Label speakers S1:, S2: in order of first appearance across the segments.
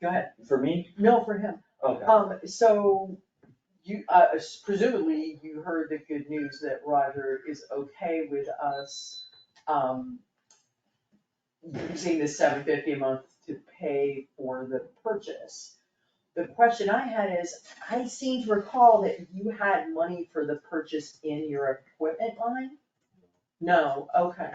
S1: go ahead,
S2: For me?
S1: no, for him,
S2: Okay.
S1: um, so you, uh, presumably you heard the good news that Roger is okay with us, um, using the seven fifty a month to pay for the purchase. The question I had is, I seem to recall that you had money for the purchase in your equipment line? No, okay.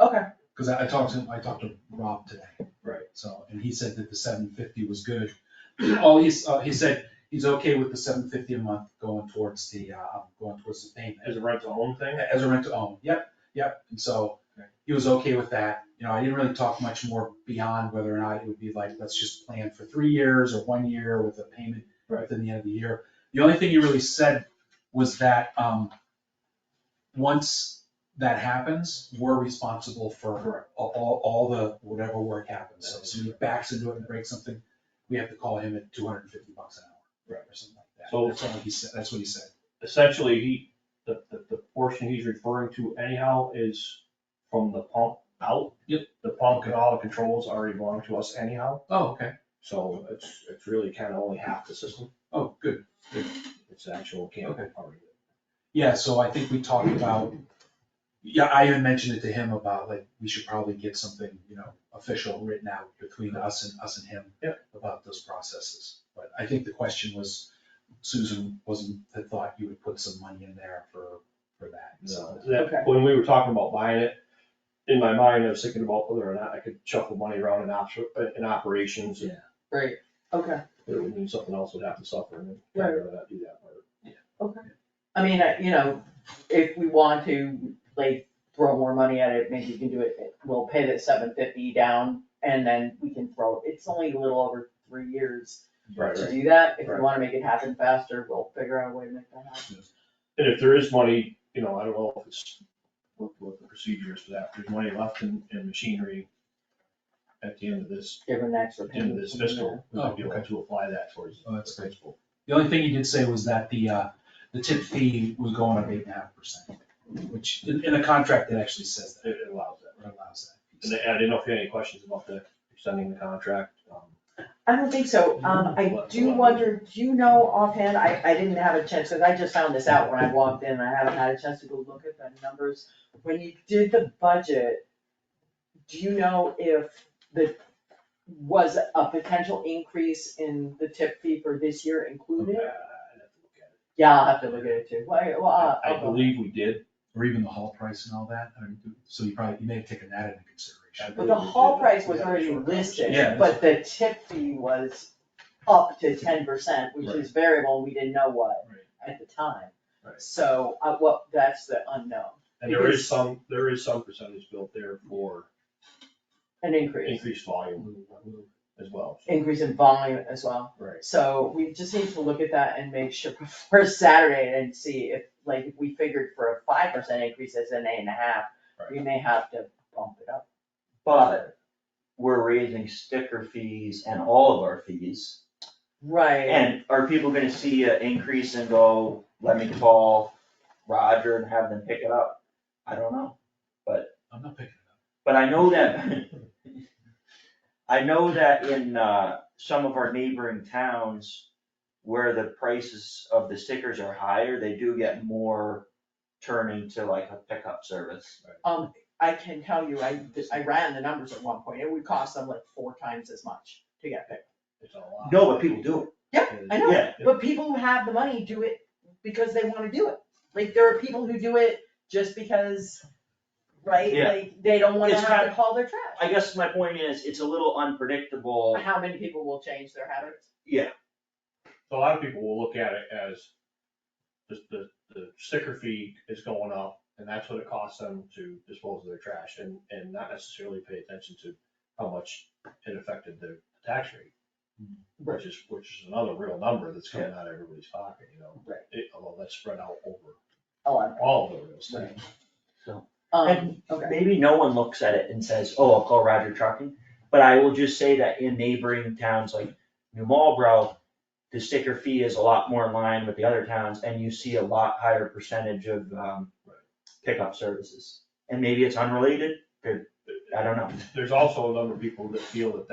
S1: Okay,
S3: Cause I, I talked to, I talked to Rob today.
S2: Right.
S3: So, and he said that the seven fifty was good. All he's, uh, he said he's okay with the seven fifty a month going towards the, uh, going towards the payment.
S2: As a rent to own thing?
S3: As a rent to own, yep, yep, and so
S2: Okay.
S3: he was okay with that, you know, I didn't really talk much more beyond whether or not it would be like, let's just plan for three years or one year with a payment
S2: Right.
S3: within the end of the year. The only thing he really said was that, um, once that happens, we're responsible for all- all, all the, whatever work happens, so if somebody backs into it and breaks something, we have to call him at two hundred and fifty bucks an hour. Or something like that,
S4: So-
S3: that's all he said, that's what he said,
S4: essentially, he, the, the, the portion he's referring to anyhow is from the pump out.
S3: Yep.
S4: The pump and all the controls already belong to us anyhow,
S3: oh, okay,
S4: so it's, it's really kind of only half the system,
S3: oh, good.
S4: it's the actual cable part of it.
S3: Yeah, so I think we talked about, yeah, I even mentioned it to him about like, we should probably get something, you know, official written out between us and, us and him. About those processes, but I think the question was, Susan wasn't, had thought you would put some money in there for, for that, so.
S4: So that, when we were talking about buying it, in my mind, I was thinking about whether or not I could shuffle money around in ops, in operations. and
S1: great, okay.
S4: It would mean something else would have to suffer and I'd rather not do that part.
S1: I mean, I- you know, if we want to, like, throw more money at it, maybe we can do it, we'll pay the seven fifty down, and then we can throw, it's only a little over three years
S4: Right,
S1: to
S4: right.
S1: do that, if we
S4: Right.
S1: wanna make it happen faster, we'll figure out a way to make that happen.
S4: And if there is money, you know, I don't know if it's, what, what the procedure is for that, if there's money left in, in machinery at the end of this,
S1: Give an extra
S4: at the end of
S1: payment.
S4: this fiscal, we might be
S3: Oh,
S4: able
S3: okay.
S4: to apply that towards.
S3: Oh, that's
S4: the
S3: great.
S4: principal.
S3: The only thing he did say was that the, uh, the tip fee was going up eight and a half percent, which in, in the contract, it actually says that,
S4: It it allows that.
S3: or allows that.
S4: And I didn't know if you had any questions about the extending the contract. um,
S1: I don't think so, um, I do wonder, do you know offhand, I, I didn't have a chance, cause I just found this out when I walked in, I haven't had a chance to go look at the numbers. When you did the budget, do you know if the, was a potential increase in the tip fee for this year included?
S4: uh, I'd have to look at it.
S1: Yeah, I'll have to look at it too, well, I- well,
S2: Uh,
S1: I'll-
S4: I I
S1: I'll go.
S4: believe we did.
S3: Or even the hall price and all that, I mean, so you probably, you may have taken that into consideration.
S4: I
S1: But
S4: believe
S1: the
S4: we
S1: hall
S4: did.
S1: price was
S4: Yeah,
S1: already
S4: sure.
S1: listed,
S3: Yeah,
S1: but the tip fee was up to ten percent, which is variable, we didn't know what
S3: Right.
S1: at the time.
S4: Right.
S1: So, uh, well, that's the unknown,
S4: And there is some, there is some percentage built there for
S1: an increase,
S4: increased volume
S2: Mm-hmm.
S4: as well. so-
S1: increase in volume as well.
S4: Right.
S1: So we just need to look at that and make sure before Saturday and see if, like, if we figured for a five percent increase as an eight and a half, we may have to bump it up.
S2: But we're raising sticker fees and all of our fees.
S1: Right.
S2: And are people gonna see an increase and go, let me call Roger and have them pick it up? I don't know,
S3: I'm not picking it up.
S2: but I know that. I know that in, uh, some of our neighboring towns where the prices of the stickers are higher, they do get more turning to like a pickup service.
S1: Um, I can tell you, I, I ran the numbers at one point, it would cost them like four times as much to get picked.
S4: It's a lot.
S2: No, but people do it.
S1: I know.
S2: Yeah.
S1: But people who have the money do it because they wanna do it. Like, there are people who do it just because, right?
S2: Yeah.
S1: Like, they don't wanna
S2: It's
S1: have
S2: kind
S1: to haul their trash.
S2: I guess my point is, it's a little unpredictable.
S1: How many people will change their habits?
S4: a lot of people will look at it as the, the, the sticker fee is going up and that's what it costs them to dispose of their trash and, and not necessarily pay attention to how much it affected their tax rate. Which is, which is another real number that's coming out of everybody's pocket, you know?
S1: Right.
S4: It, although that's spread out over
S1: A
S2: Oh,
S1: lot.
S4: all of the real estate.
S1: Um,
S2: And
S1: okay.
S2: maybe no one looks at it and says, oh, I'll call Roger Trucking, but I will just say that in neighboring towns like New Marlboro, the sticker fee is a lot more in line with the other towns, and you see a lot higher percentage of, um, pickup services. And maybe it's unrelated, I don't know.
S4: There's also a number of people that feel that that